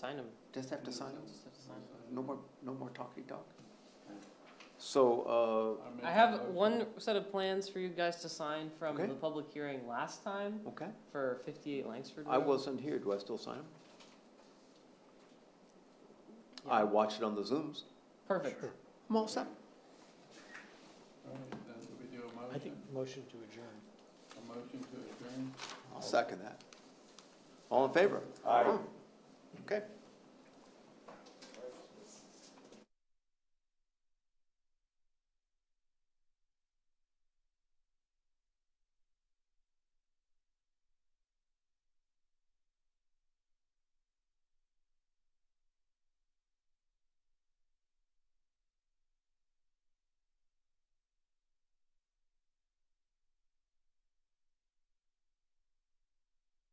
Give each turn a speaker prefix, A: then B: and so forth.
A: Sign them.
B: Just have to sign them? No more, no more talking talk? So,
A: I have one set of plans for you guys to sign from
B: Okay.
A: the public hearing last time
B: uh, okay,
A: for fifty-eight Langsford Road.
B: I wasn't here, do I still sign them?
A: Yeah.
B: I watched it on the Zooms.
A: Perfect.
B: I'm all set.
C: I think motion to adjourn.
D: A motion to adjourn?
B: I'll second that. All in favor?
D: Aye.
B: Okay.